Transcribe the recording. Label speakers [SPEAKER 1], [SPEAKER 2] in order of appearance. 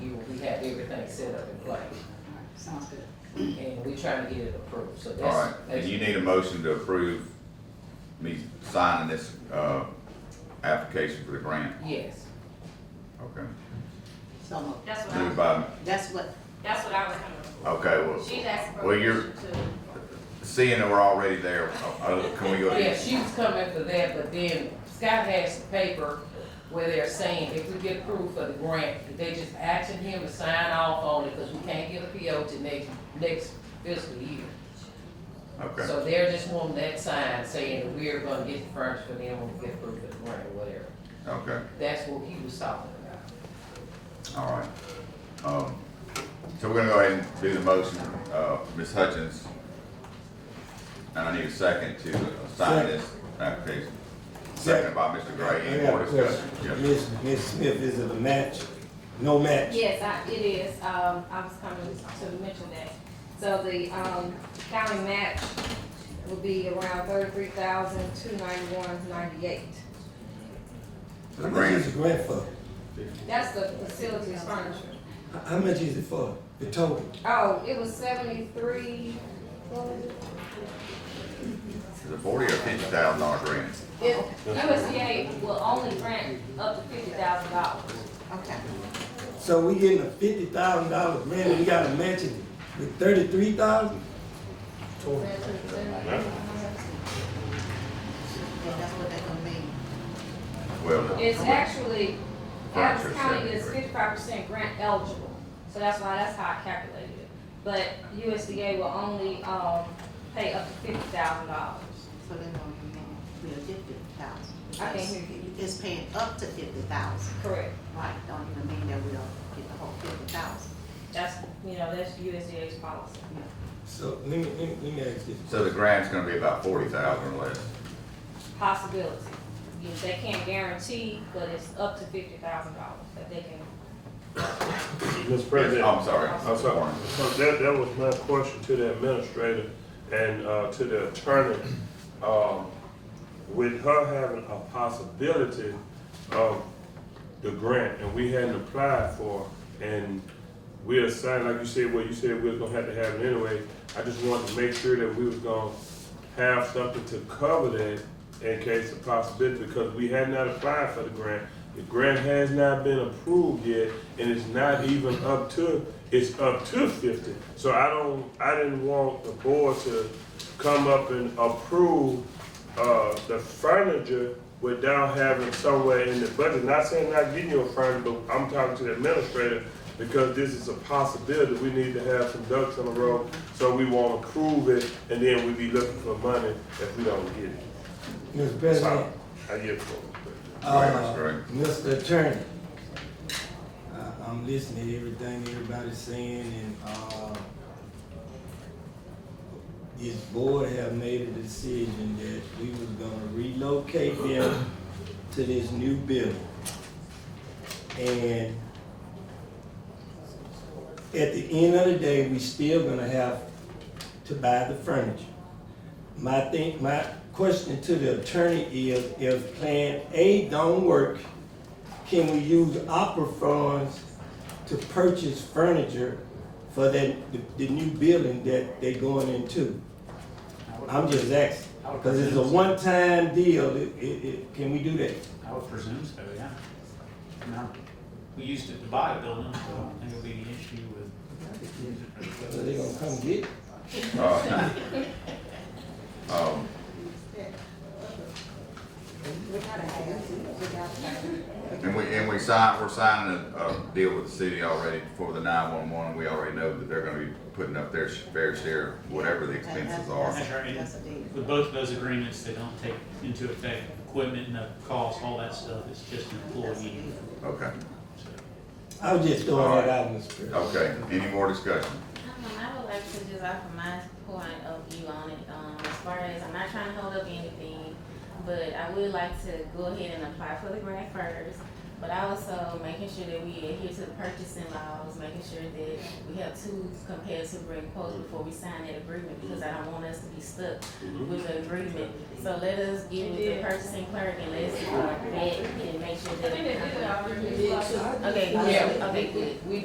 [SPEAKER 1] set up in place,
[SPEAKER 2] Sounds good.
[SPEAKER 1] and we trying to get it approved, so
[SPEAKER 3] All right,
[SPEAKER 1] that's.
[SPEAKER 3] and you need a motion to approve me signing this, uh, application for the grant,
[SPEAKER 1] Yes,
[SPEAKER 3] okay?
[SPEAKER 2] So moved.
[SPEAKER 4] That's what I
[SPEAKER 3] Moved
[SPEAKER 4] was,
[SPEAKER 3] by,
[SPEAKER 2] That's what,
[SPEAKER 4] that's what I was coming for.
[SPEAKER 3] okay, well,
[SPEAKER 4] She's asking for
[SPEAKER 3] Well, you're-
[SPEAKER 4] permission to,
[SPEAKER 3] seeing that we're already there, uh, uh, can we go?
[SPEAKER 1] yeah, she was coming for that, but then Scott has the paper where they're saying if we get approved for the grant, they just asking him to sign off on it, because we can't get a PO to next, next fiscal year.
[SPEAKER 3] Okay,
[SPEAKER 1] So they're just wanting that sign saying that we're gonna get the furniture for them when we get approved for the grant or whatever.
[SPEAKER 3] okay,
[SPEAKER 1] That's what he was talking about.
[SPEAKER 3] all right. Um, so we're gonna go ahead and do the motion, uh, Ms. Hutchins. And I need a second to sign this application. Second by Mr. Gray, any more discussion? Yes.
[SPEAKER 5] Miss, Miss Smith, is it a match? No match?
[SPEAKER 4] yes, I, it is, um, I was coming to mention that. So the, um, county match will be around thirty-three thousand, two ninety-one, ninety-eight.
[SPEAKER 5] How much is the grant for?
[SPEAKER 4] That's the facilities furniture.
[SPEAKER 5] How- How much is it for, the total?
[SPEAKER 4] Oh, it was seventy-three, what was it?
[SPEAKER 3] Is it forty or fifty thousand dollar grant?
[SPEAKER 4] It- USDA will only grant up to fifty thousand dollars.
[SPEAKER 2] okay.
[SPEAKER 5] So we getting a fifty thousand dollar grant, and we gotta match it with thirty-three thousand?
[SPEAKER 2] Yeah, that's what they gonna mean.
[SPEAKER 3] Well,
[SPEAKER 4] It's actually, Adams
[SPEAKER 3] Gotcha,
[SPEAKER 4] County is
[SPEAKER 3] 73.
[SPEAKER 4] fifty-five percent grant eligible, so that's why, that's how I calculated it. But USDA will only, um, pay up to fifty thousand dollars.
[SPEAKER 2] So they want to know we are fifty thousand.
[SPEAKER 4] I can't hear you.
[SPEAKER 2] It's paying up to fifty thousand,
[SPEAKER 4] Correct.
[SPEAKER 2] right, don't even mean that we'll get the whole fifty thousand.
[SPEAKER 4] That's, you know, that's USDA's policy.
[SPEAKER 5] So, let me, let me, let me ask you,
[SPEAKER 3] so the grant's gonna be about forty thousand or less.
[SPEAKER 4] Possibility. You know, They can't guarantee, but it's up to fifty thousand dollars that they can,
[SPEAKER 6] Mr.
[SPEAKER 3] Yes,
[SPEAKER 6] President,
[SPEAKER 3] Oh, I'm sorry.
[SPEAKER 6] I'm sorry. so that, that was my question to the administrator and, uh, to the attorney. Um, with her having a possibility of the grant and we hadn't applied for, and we are assigned, like you said, well, you said we was gonna have to have it anyway. I just wanted to make sure that we was gonna have something to cover that in case of possibility, because we had not applied for the grant. The grant has not been approved yet, and it's not even up to, it's up to fifty. So I don't, I didn't want the board to come up and approve, uh, the furniture without having somewhere in the budget. Not saying not getting you a furniture, but I'm talking to the administrator, because this is a possibility, we need to have some ducks in a row, so we wanna prove it, and then we be looking for money if we don't get it.
[SPEAKER 5] Mr.
[SPEAKER 6] So,
[SPEAKER 5] President,
[SPEAKER 6] I get it.
[SPEAKER 5] uh,
[SPEAKER 3] Right,
[SPEAKER 5] Mr. Attorney. I, I'm listening to everything everybody's saying, and, uh, this board have made a decision that we was gonna relocate them to this new building. And at the end of the day, we still gonna have to buy the furniture. My thing, my question to the attorney is, if Plan A don't work, can we use opera funds to purchase furniture for that, the, the new building that they going into? I'm just asking, because it's a one-time deal, it, it, it, can we do that?
[SPEAKER 7] I would presume so, yeah. I mean, I- We used it to buy a building, so I don't think it'll be an issue with.
[SPEAKER 5] So they gonna come get it?
[SPEAKER 3] Uh, Um, and we, and we signed, we're signing a, a deal with the city already for the nine-one-one, we already know that they're gonna be putting up their sh- fair share, whatever the expenses are.
[SPEAKER 7] That's right.
[SPEAKER 2] That's a deal.
[SPEAKER 7] With both of those agreements, they don't take into effect equipment and the cost, all that stuff, it's just an employee.
[SPEAKER 3] Okay,
[SPEAKER 7] so.
[SPEAKER 5] I was just throwing that out, Mr. President.
[SPEAKER 3] okay, any more discussion?
[SPEAKER 8] Um, I would like to just offer my point of view on it, um, as far as, I'm not trying to hold up anything, but I would like to go ahead and apply for the grant first, but also making sure that we adhere to the purchasing laws, making sure that we have two competitive rate quotes before we sign that agreement, because I don't want us to be stuck with the agreement. So let us get with the purchasing clerk and let's, uh, vet and make sure
[SPEAKER 4] I think they did it
[SPEAKER 8] that.
[SPEAKER 4] already.
[SPEAKER 8] Okay,
[SPEAKER 1] Yeah,
[SPEAKER 8] okay, good.
[SPEAKER 1] we, we